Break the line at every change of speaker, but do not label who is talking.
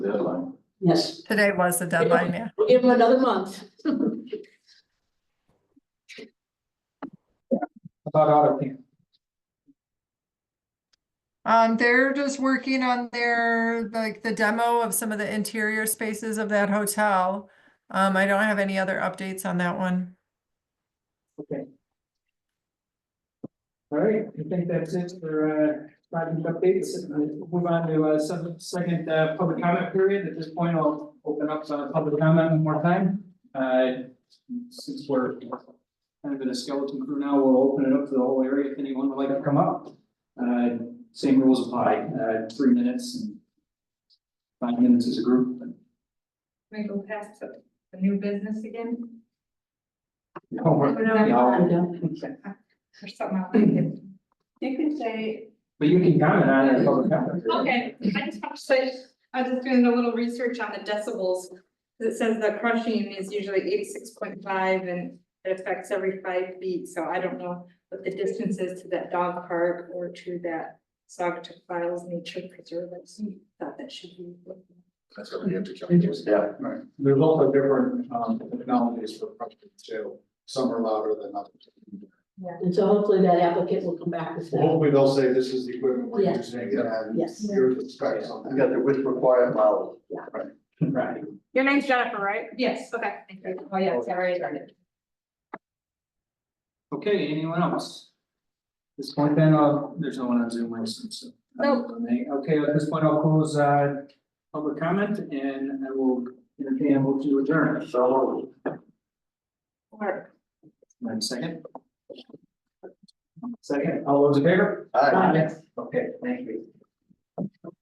Yes,
Today was the deadline, yeah.
we'll give them another month.
about AutoCAD.
Um, they're just working on their, like, the demo of some of the interior spaces of that hotel. Um, I don't have any other updates on that one.
Okay. All right, I think that's it for uh project updates. We'll Move on to uh some second uh public comment period. At this point, I'll open up uh public comment one more time. Uh since we're kind of in a skeleton crew now, we'll open it up to the whole area if anyone would like to come up. Uh same rules apply, uh three minutes and five minutes as a group.
Can I go past the the new business again?
Homework.
I
No,
don't think so.
Or something I like it.
You can say,
But you can comment on it in public comment. period.
Okay, I just want to say, I was just doing a little research on the decibels. It says the crushing is usually eighty-six point five and it affects every five feet, so I don't know what the distance is to that dog park or to that Sagatuck Files Nature Preserve. I just Thought that should be.
That's what we have to check.
Yeah.
Right, there's also different um technologies for project too, some are louder than others.
And so hopefully that applicant will come back with that.
Hopefully they'll say this is the equipment we're
Yeah.
using and
Yes.
here's the specs on that.
You got the width required model.
Right.
Your name's Jennifer, right?
Yes, okay, thank you. Oh, yeah, sorry.
Okay, anyone else? At this point then, uh, there's no one on Zoom, I assume, so. Okay, at this point, I'll close, uh, public comment and I will entertain a motion to adjourn. So.
Or-
One second. Second, all those in favor?
All right.
Got it.
Okay, thank you.